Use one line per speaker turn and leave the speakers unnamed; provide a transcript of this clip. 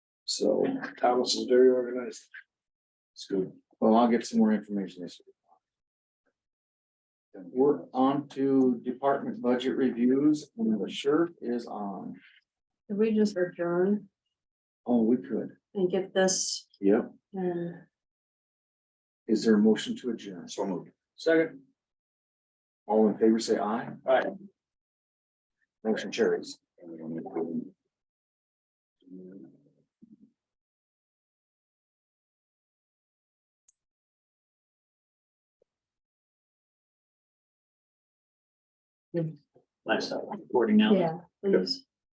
So Thomas is very organized.
It's good.
Well, I'll get some more information this week. We're on to department budget reviews, and the shirt is on.
Could we just adjourn
Oh, we could.
and get this uh,
Yep.
and
Is there a motion to adjourn?
So moved.
Second,
All in favor, say aye.
Aye.
Motion carries.
And we don't need to-
nice, recording now.
yeah, please?